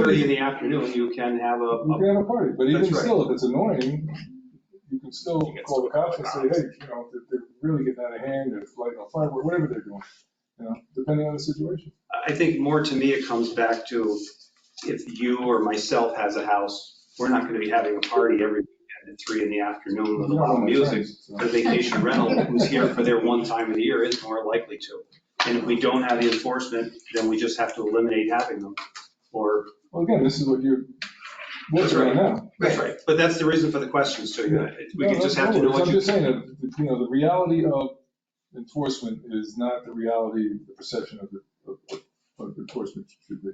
early in the afternoon, you can have a, You a- can have a party, but even That's right. still, if it's annoying, you can still You can call the still call cops and the say, hey, you know, they're, they're really getting out of hand, they're lighting a fire, whatever they're doing, you know, depending on the situation. I think more to me, it comes back to if you or myself has a house, we're not gonna be having a party every weekend at three in the afternoon with a You don't lot know of my music. friends, so. The vacation rental, who's here for their one time of the year, is more likely to. And if we don't have the enforcement, then we just have to eliminate having them, or. Well, again, this is what you're That's working on right. now. That's right. But that's the reason for the questions, so you know, we No, can just no, have to no know worries. what I'm you. just saying that, you know, the reality of enforcement is not the reality, the perception of the, of- of enforcement should be.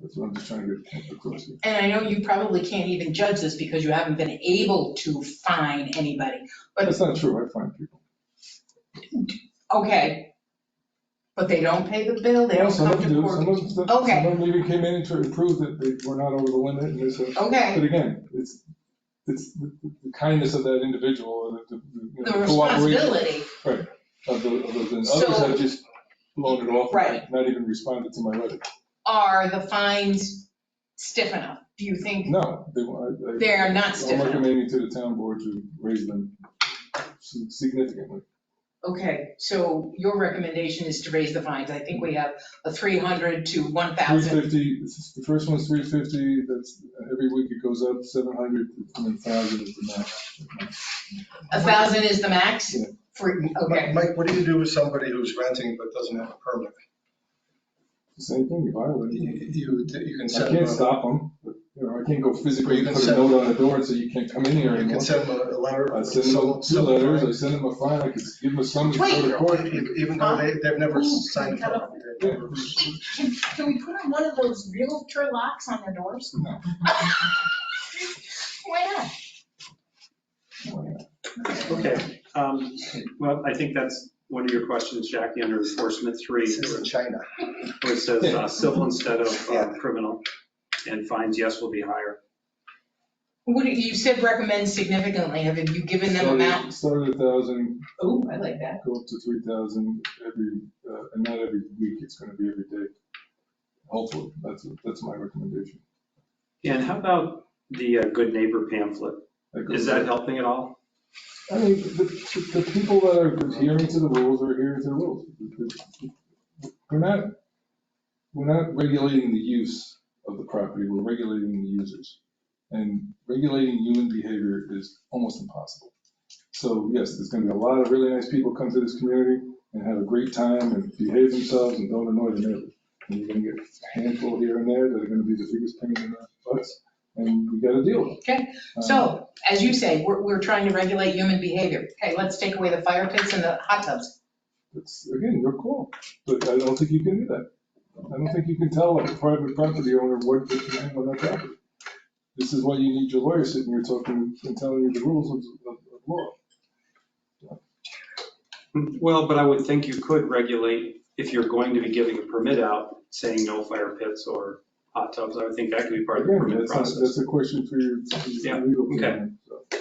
That's what I'm just trying to get across here. And I know you probably can't even judge this because you haven't been able to fine anybody. But- That's not true, I find people. Okay. But they don't pay the bill, they don't Some come of them to do, some court. of them, Okay. some of them even came in to prove that they were not over the limit and this, and- but Okay, again, it's, it's the the kindness of that individual, or the, the, you the know, cooperation responsibility, of the, of those, and So- others have just blown it off. Right. and Not even responded to my letter. are the fines stiff enough? Do you think No, they, I- I- they're not stiff I'm enough? recommending to the town board to raise them significantly. Okay, so your recommendation is to raise the fines. I think we have a 300 to 1,000. 350, this is- the first one's 350, that's, every week it goes up, 700, and then 1,000 is the max. A 1,000 is the max Yeah. for, okay. Mike, what do you do with somebody who's renting but doesn't have a permit? Same thing, you violate it. You, you can I send them, can't a- stop them, but, you know, I can't go physically You can put a send- note on the door and say you can't come in here you can anymore. send them a letter. I or send them some- two some- letters, I send them a fine, I could give them a summons, go to court. Even even though they, they've never signed. a permit, they've never- Can, can we put on one of those realtor locks on their doors? No. Why not? Okay, um, well, I think that's one of your questions, Jackie, under enforcement three. This is in China. where it says uh, civil instead of uh, Yeah. criminal, and fines, yes, will be higher. What, do- you said recommend significantly. Have you given them Started- amount? Started at 1,000, Oh, I like that. go up to three thousand every, uh, and not every week, it's gonna be every day. Hopefully, that's, that's my recommendation. And how about the uh, good neighbor pamphlet? goes- Is that helping at all? I mean, the, the- the people that are adhering to the rules are adhering to the rules. We're not, we're not regulating the use of the property, we're regulating the users. And regulating human behavior is almost impossible. So yes, there's gonna be a lot of really nice people come to this community and have a great time and behave themselves and don't annoy the neighbors. And you're gonna get a handful here and there that are gonna be the biggest pain in the butts, and we gotta deal with it. Okay, Um, So, as you say, we're, we're trying to regulate human behavior. Okay, let's take away the fire pits and the hot tubs. It's, again, your call, but I don't think you can do that. I don't think you can tell a private property owner what they can have on their property. This is why you need your lawyer sitting here talking and telling you the rules of, of of law. Well, but I would think you could regulate, if you're going to be giving a permit out, saying no fire pits or hot tubs, I would think that could be part of the Again, permit that's, not- process. that's a question for your for Yeah, your legal. okay. team, so.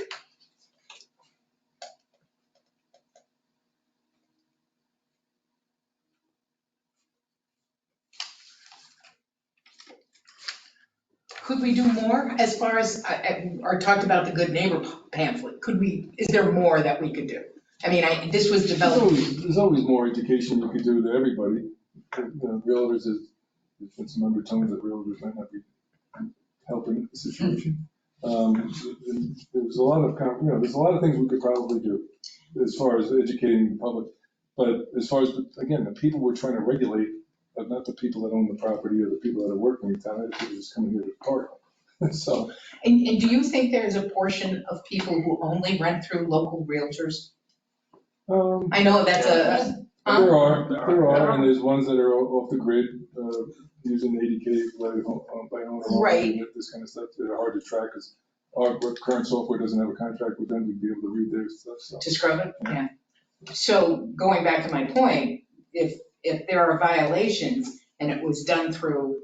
Could we do more as far as, I- I- or talked about the good neighbor pamphlet? Could we, is there more that we could do? I mean, I, this was There's developed, always, there's always more education you could do to everybody. You know, Realtors is, there's been some undertones that realtors might not be helping the situation. Um, and There's a lot of, con- you know, there's a lot of things we could probably do as far as educating the public. But as far as, again, the people we're trying to regulate, but not the people that own the property or the people that are working in town, they're just coming here to party. So, and, and do you think there's a portion of people who only rent through local realtors? um, I know that's a, huh? There are, there are, and there's ones that are o- off the grid, uh, using eighty K by, ho- uh, by owner. home, Right. and This kind of stuff, that are hard to track, because our current software doesn't have a contract with them to be able to read their stuff, so. to scrub it, yeah. So going back to my point, if, if there are violations and it was done through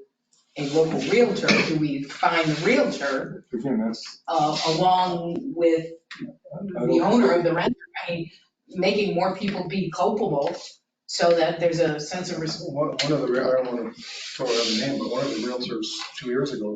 a local realtor, do we find the realtor Again, that's, uh, along with I I the don't, owner of the renter? I mean, making more people be culpable so that there's a sense of responsibility One one of the, I don't want to throw out a name, but one of the realtors two years ago